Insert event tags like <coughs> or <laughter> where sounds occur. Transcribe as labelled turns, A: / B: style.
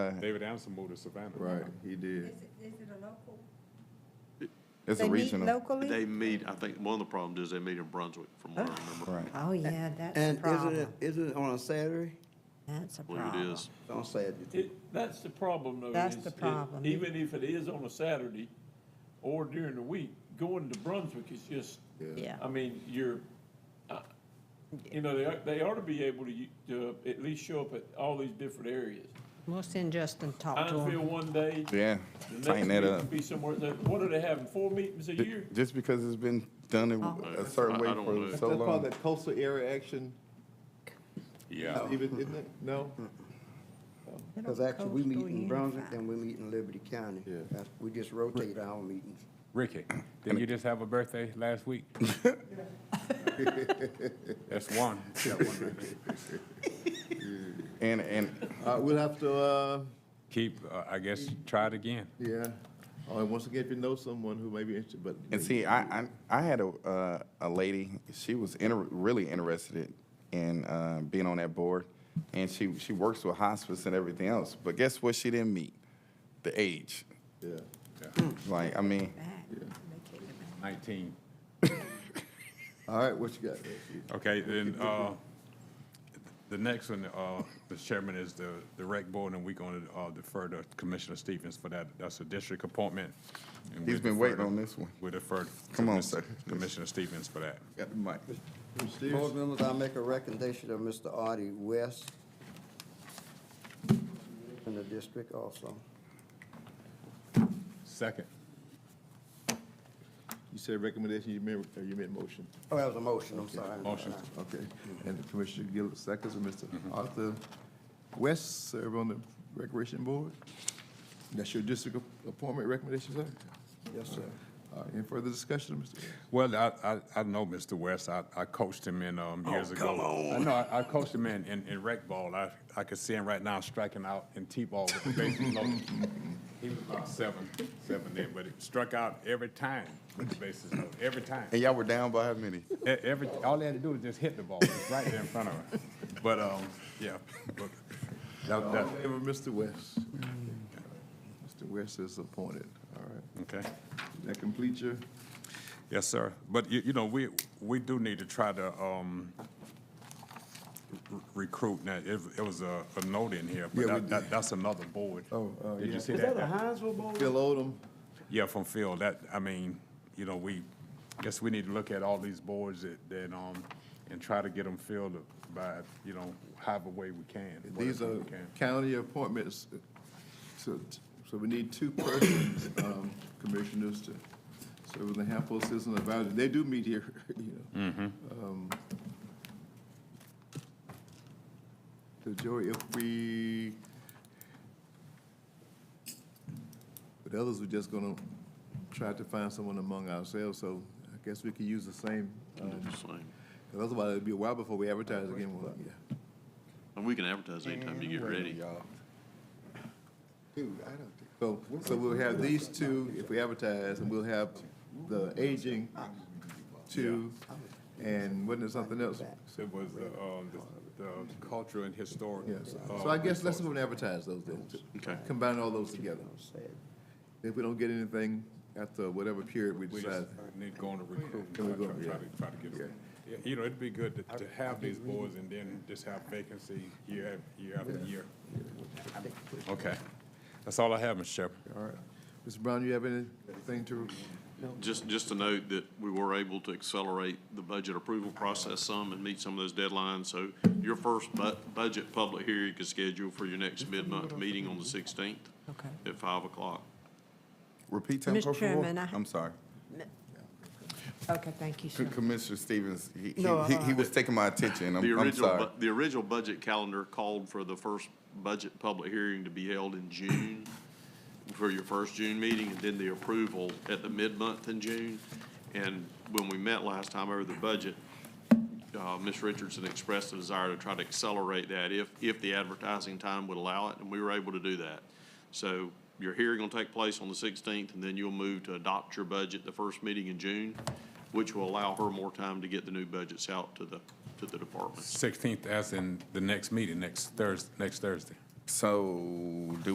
A: David Anderson moved to Savannah.
B: Right, he did.
C: Is it, is it a local?
B: It's a
C: They meet
B: regional.
C: Locally?
D: They meet, I think one of the problems is they meet in Brunswick, from what I remember.
B: Right.
E: Oh, yeah, that's a
F: And isn't it,
E: problem.
F: isn't it on a Saturday?
E: That's a
D: I believe it
E: problem.
D: is.
F: It's on Saturday. too.
G: It, that's the problem though.
E: That's
G: is
E: the
G: it-
E: problem.
G: Even if it is on a Saturday or during the week, going to Brunswick is just,
E: Yeah.
G: I mean, you're, uh, you know, they, are- they ought to be able to, u- to at least show up at all these different areas.
E: We'll send Justin to talk to
G: Hinesville
E: him.
G: one day,
B: Yeah,
G: the
B: tighten
G: next
B: that
G: week
B: up.
G: could be somewhere, else. what are they having, four meetings a year?
B: Just because it's been done
E: Oh.
B: in a certain way
D: I- I don't know.
B: for so
H: That's part of
B: long.
H: that coastal area action,
A: Yeah.
H: even, isn't it? No?
F: Because actually, we meet
E: Coastal
F: in Brunswick
E: Unified.
F: and we meet in Liberty County.
H: Yeah.
F: That's- We just rotate our meetings.
A: Ricky, did you just have a birthday last
B: <laughs>
A: week? That's one.
B: And, and,
H: Uh, we'll have to, uh,
A: Keep, uh, I guess, try it again.
H: yeah, or once again, if you know someone who may be interested, but.
B: and see, I, I, I had a, uh, a lady, she was inter, really interested in, uh, being on that board. And she, she works with hospice and everything else, but guess what she didn't meet? The age.
H: Yeah.
B: Like, I mean,
E: Back. They kicked him out.
B: <laughs>
A: Nineteen.
H: All right, what you got?
I: Okay, then, uh, the next one, uh, the chairman is the, the rec board, and we're gonna, uh, defer to Commissioner Stevens for that. That's a district appointment. and
B: He's
I: we'll
B: been
I: defer
B: waiting
I: to-
B: on this one.
I: We'll defer to
B: Come on,
I: Commis-
B: sir.
I: Commissioner Stevens for that.
B: got the mic.
H: Mr.
F: Board
H: Stevens?
F: members, I make a recommendation of Mr. Artie West in the district also.
A: Second.
H: You said recommendation, you meant, or you meant motion?
F: Oh, that was a motion, I'm sorry.
I: Motion.
H: Okay,
B: Mm-hmm.
H: and Commissioner Gill seconds, and Mr. Arthur West serve on the Recreation Board? That's your district appointment recommendation, sir?
F: Yes, sir.
H: All right, any further discussion, Mr. West?
I: Well, I, I, I know Mr. West. I, I coached him in, um, years ago. I know, I, I coached him in, in, in rec ball. I, I could see him right now striking out in T-ball with the bases loaded. He was about seven, seven then, but he struck out every time with the bases loaded, every time.
B: And y'all were down by how many?
I: E- Every, all they had to do was just hit the ball, it's right there in front of her. But, um, yeah, but that,
H: All
I: that,
H: in favor of Mr. West? Mr. West is appointed, all right.
I: okay.
H: That complete your,
I: Yes, sir. But you, you know, we, we do need to try to, um, r- recruit. Now, it, it was a, a note in here,
H: Yeah,
I: but
H: we
I: that,
H: did.
I: that, that's another board.
H: Oh, oh,
I: Did
H: yeah.
I: you see
F: Is that
I: that?
F: a Hinesville board?
H: Phil Odom,
I: Yeah, from Phil. That, I mean, you know, we, guess we need to look at all these boards that, that, um, and try to get them filled by, you know, however way we can.
H: these
I: whatever
H: are
I: we can.
H: county appointments, so, so we need two persons, <coughs> um, commissioners to serve on the Hamilton Citizen Advisory. They do meet here, <laughs> you know. Um, So Joey, if we, but others, we're just gonna try to find someone among ourselves, so I guess we could use the same, um,
D: Same.
H: Because otherwise, it'd be a while before we advertise again. Well, yeah.
D: And we can advertise anytime you get ready.
F: Dude, I don't think.
H: So, so we'll have these two if we advertise, and we'll have the aging two, and wasn't there something else?
I: It was the, um, the, the cultural and historic.
H: Yes.
I: uh,
H: So I guess let's go and advertise those then.
D: Okay.
H: Combine all those together. If we don't get anything after whatever period we
I: We just
H: decide.
I: need to go on a recruitment,
H: Can we go-
I: try try to, try to get them. Yeah, You know, it'd be good to, to have these boards and then just have vacancy year, af- year after year. Okay, that's all I have, Mr. Chairman.
H: All right. Mr. Brown, you have anything to,
D: Just, just to note that we were able to accelerate the budget approval process some and meet some of those deadlines. So your first bu- budget public hearing is scheduled for your next mid-month meeting on the sixteenth
E: Okay.
D: at five o'clock.
B: Repeat tempo
E: Mr.
B: for
E: Chairman, I-
B: I'm sorry.
E: Okay, thank you,
B: C-
E: sir.
B: Commissioner Stevens, he, he,
E: No,
B: he-
E: uh,
B: he was taking my attention.
D: The
B: I'm, I'm
D: original,
B: sorry.
D: bu- the original budget calendar called for the first budget public hearing to be held in June for your first June meeting, and then the approval at the mid-month in June. And when we met last time over the budget, uh, Ms. Richardson expressed a desire to try to accelerate that if, if the advertising time would allow it, and we were able to do that. So your hearing will take place on the 16th, and then you'll move to adopt your budget the first meeting in June, which will allow her more time to get the new budgets out to the, to the departments.
I: Sixteenth, as in the next meeting, next Thursday, next Thursday.
B: So, do